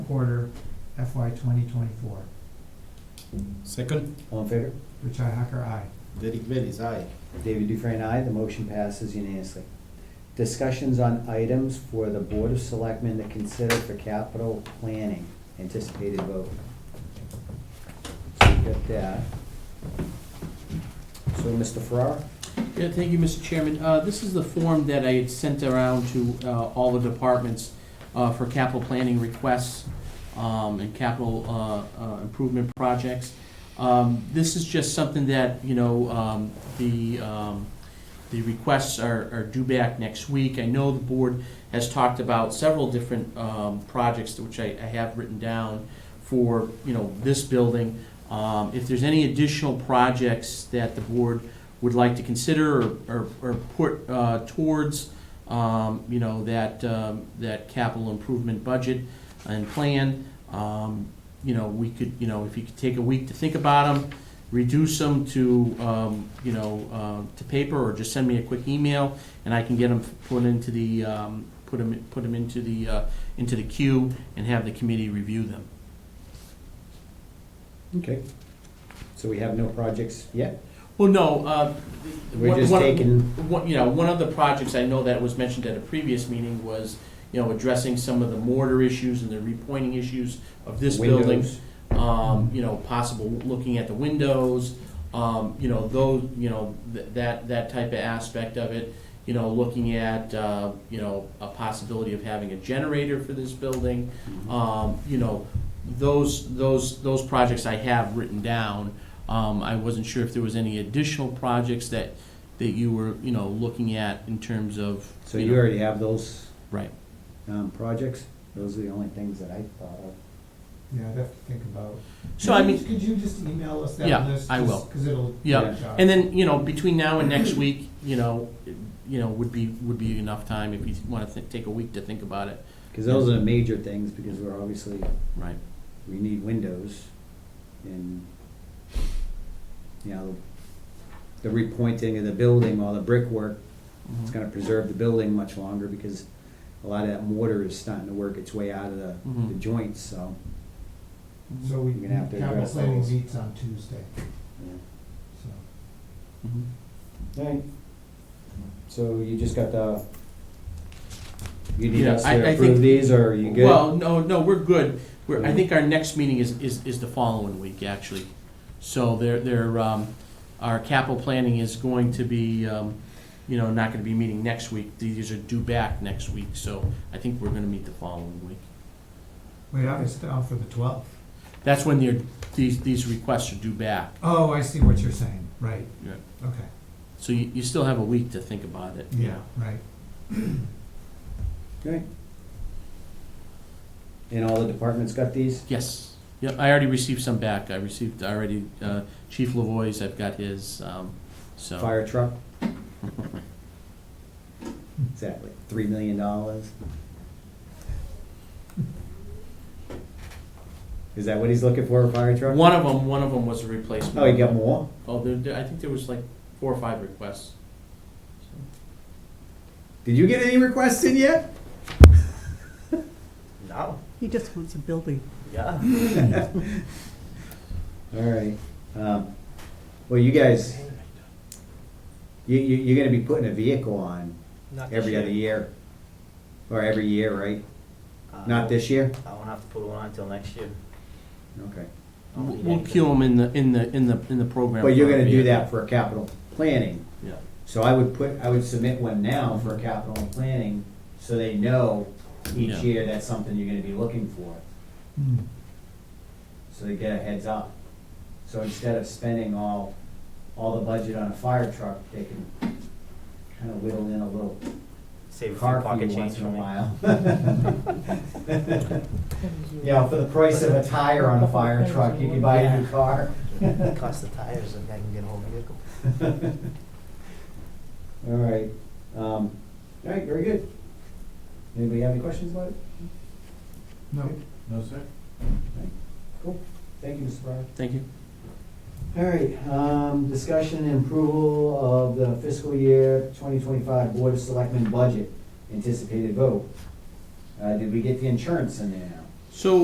quarter FY twenty twenty-four. Second, All in favor? Richi Hacker, aye. Derek Bellis, aye. David Dufresne, aye. The motion passes unanimously. Discussions on items for the Board of Selectmen to consider for capital planning, anticipated vote. So we got that. So, Mr. Farrar? Yeah, thank you, Mr. Chairman. Uh, This is the form that I had sent around to uh, all the departments uh, for capital planning requests um, and capital uh, uh, improvement projects. Um, This is just something that, you know, um, the, um, the requests are are due back next week. I know the board has talked about several different um, projects, which I I have written down for, you know, this building. Um, If there's any additional projects that the board would like to consider or- or, or put uh, towards, um, you know, that, um, that capital improvement budget and plan, um, you know, we could, you know, if you could take a week to think about them, reduce them to, um, you know, uh, to paper, or just send me a quick email, and I can get them put into the, um, put them, put 'em into the, uh, into the queue and have the committee review them. Okay. So we have no projects yet? Well, no, uh. We're one- just one- taking- One, you know, one of the projects I know that was mentioned at a previous meeting was, you know, addressing some of the mortar issues and the repointing issues of this building. Windows? Um, you know, possible looking at the windows, um, you know, those, you know, th- that, that type of aspect of it. You know, looking at, uh, you know, a possibility of having a generator for this building. Mm-hmm. Um, you know, those, those, those projects I have written down. Um, I wasn't sure if there was any additional projects that, that you were, you know, looking at in terms of. So you know- already have those Right. um, projects? Those are the only things that I thought of. Yeah, I'd have to think about. So I mean. Could you just email us Yeah, that list? I just will. Cause it'll. Yeah, good job. And then, you know, between now and next week, you know, you know, would be, would be enough time if you wanna thi- take a week to think about it. Because those are the major things, because we're obviously, Right. we need windows and, you know, the repointing of the building, all the brickwork, Mm-hmm. it's gonna preserve the building much longer because a lot of that mortar is starting to work its way out of the, the Mhm. joints, so. So we, You're gonna have to capital address planning those. meets on Tuesday, yeah. so. Mhm. Alright, so you just got the, you need Yeah, us I- to I approve think- these, or are you good? Well, no, no, we're good. We're, I Mhm. think our next meeting is, is, is the following week, actually. So there, there, um, our capital planning is going to be, um, you know, not gonna be meeting next week. These are due back next week, so I think we're gonna meet the following week. Wait, I was down for the twelfth. That's when they're, these, these requests are due back. Oh, I see what you're saying, right. Yeah. Okay, So you, you still have a week to think about it. you yeah, know. right. Okay. And all the departments got these? Yes. Yep, I already received some back. I received already uh, Chief Lavoy's, I've got his, um, so. Fire truck? Is that like three million dollars? Is that what he's looking for, a fire truck? One of them, one of them was a replacement. Oh, he got more? Oh, there, there- I think there was like four or five requests. Did you get any requests in yet? Now? He just wants a building. Yeah. All right. Um, well, you guys, you, you, you're gonna be putting a vehicle on every other year, or every year, right? Not this year? Uh, I won't have to put one on until next year. Okay. I won't We'll need we'll anything. queue them in the, in the, in the, in the program. But you're for gonna do vehicle. that for capital planning. Yeah. So I would put, I would submit one now for capital and planning, so they know each Yeah. year that's something you're gonna be looking for, Hmm. so they get a heads up. So instead of spending all, all the budget on a fire truck, they can kinda whittle in a little Save a few car pocket fee once change in for a me. while. You know, for the price of a tire on a fire truck, you can buy a new car. Cost the tires, and I can get a whole vehicle. All right, um, all right, very good. Anybody have any questions about it? No, No, sir. Cool, thank you, Mr. Breyer. Thank you. All right, um, discussion and approval of the fiscal year twenty twenty-five Board of Selectmen budget, anticipated vote. Uh, did we get the insurance in there now? So